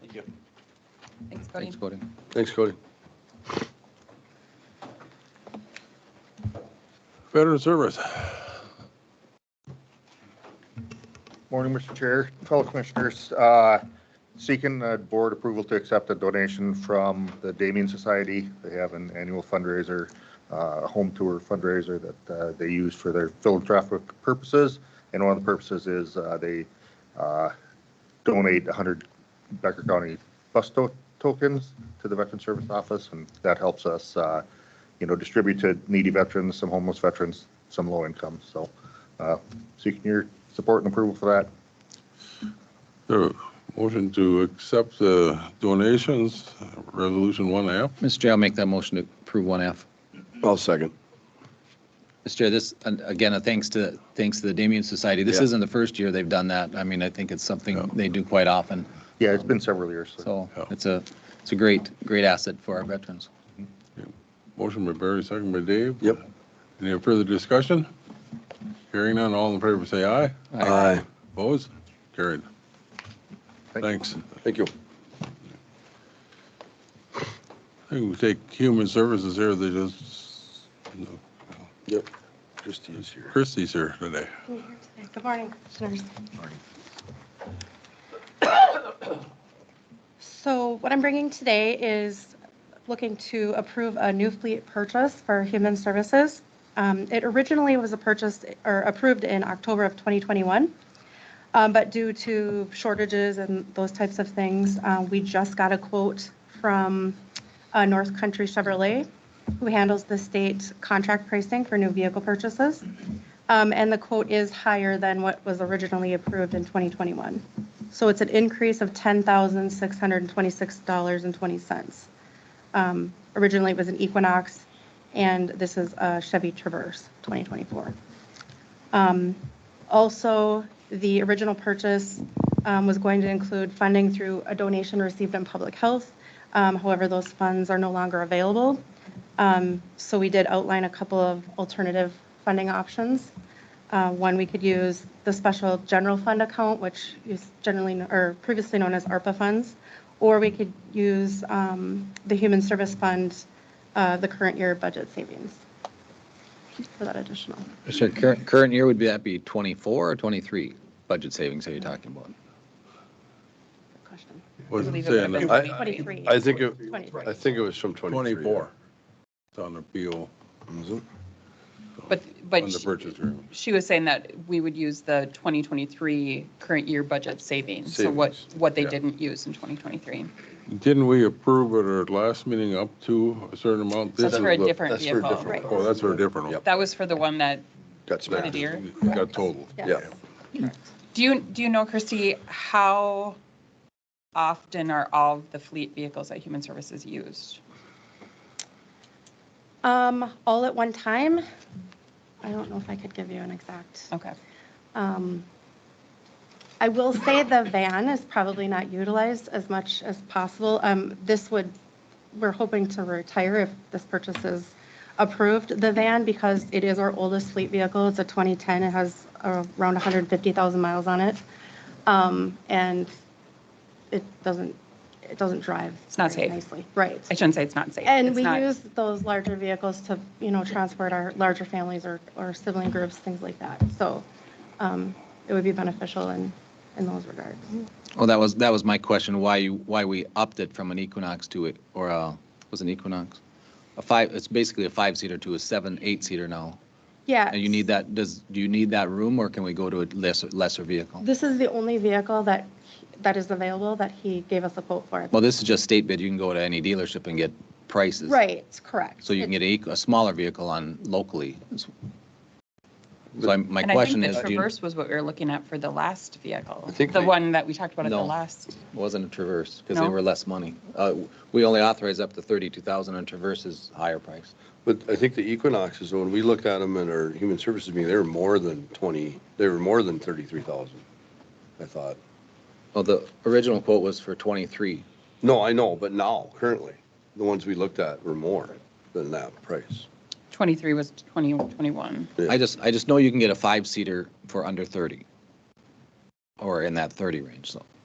Thank you. Thanks, Cody. Thanks, Cody. Thanks, Cody. Veteran Service. Morning, Mr. Chair, fellow commissioners. uh, Seeking uh, board approval to accept a donation from the Damien Society. They have an annual fundraiser, uh, home tour fundraiser that uh, they use for their philanthropic purposes. And one of the purposes is uh, they uh, donate 100 Becker County bus to- tokens to the Veteran Service Office. And that helps us, uh, you know, distribute to needy veterans, some homeless veterans, some low income. So uh, seeking your support and approval for that. So, Motion to accept the donations, Resolution 1F. Mr. Chair, I'll make that motion to approve 1F. I'll second. Mr. Chair, this, and again, a thanks to, thanks to the Damien Society. This Yeah. isn't the first year they've done that. I mean, I think it's Yeah. something they do quite often. Yeah, it's been several years. so- So Yeah. it's a, it's a great, great asset for our veterans. Motion by Barry, second by Dave. Yep. Any further discussion? Hearing none, all in favor say aye. Uh, Aye. Opposed? Carried. Thank you. Thanks. Thank you. I think we take Human Services here, they just, Yep. Christie is here. Christie's here today. Good morning, commissioners. So what I'm bringing today is looking to approve a new fleet purchase for Human Services. Um, It originally was a purchase or approved in October of 2021, um, but due to shortages and those types of things, uh, we just got a quote from uh, North Country Chevrolet, who handles the state contract pricing for new vehicle purchases. Um, And the quote is higher than what was originally approved in 2021. So it's an increase of $10,626.20. Um, Originally, it was an Equinox, and this is a Chevy Traverse 2024. Um, Also, the original purchase um, was going to include funding through a donation received in public health. Um, However, those funds are no longer available. Um, So we did outline a couple of alternative funding options. Uh, One, we could use the special general fund account, which is generally, kn- or previously known as ARPA funds, or we could use um, the Human Service Fund, uh, the current year budget savings for that additional. Mr. Chair, current, current year would be, that be 24 or 23 budget savings are you talking about? Good question. Wasn't Believe it saying would've that. been- I- 23. I think, it- 23. I think it was from 23. 24. It's on the PO, Was it? on But, but the she- purchase agreement. she was saying that we would use the 2023 current year budget savings. So what, Savings, what they yeah. didn't use in 2023. Didn't we approve at our last meeting up to a certain amount? That's This for a is the- different That's for a vehicle. different Oh, one. that's for a different one. That was for the one that Got smacked. Grenadier. Got total. Yeah. Do you, do you know, Christy, how often are all of the fleet vehicles that Human Services used? Um, All at one time? I don't know if I could give you an exact. Okay. Um, I will say the van is probably not utilized as much as possible. Um, This would, we're hoping to retire if this purchase is approved, the van, because it is our oldest fleet vehicle. It's a 2010. It has around 150,000 miles on it. Um, And it doesn't, it doesn't drive. It's not very safe. Nicely, right. I shouldn't say it's not safe. And It's we not- use those larger vehicles to, you know, transport our larger families or, or sibling groups, things like that. So um, it would be beneficial in, in those regards. Well, Oh, that was, that was my question, why you, why we upped it from an Equinox to it, or a, was it an Equinox? A five, it's basically a five-seater to a seven, eight-seater now. Yeah. And you need that, does, do you need that room, or can we go to a lesser, lesser vehicle? This is the only vehicle that, that is available that he gave us a quote for. Well, this is just state bid, you can go to any dealership and get prices. Right, correct. So you can get a, equ- a smaller vehicle on locally. So I'm- my And I think question the is, do you- Traverse was what we were looking at for the last vehicle, think the we- one that we talked about at the No. last. wasn't a Traverse, because they No. were less money. Uh, We only authorize up to 32,000, and Traverse is higher price. But I think the Equinoxes, when we looked at them in our human services meeting, they were more than 20, they were more than 33,000, I thought. Well, the original quote was for 23. No, I know, but now, currently, the ones we looked at were more than that price. 23 was 2021. I just, I just know you can get a five-seater for under 30, or in that 30 range, so.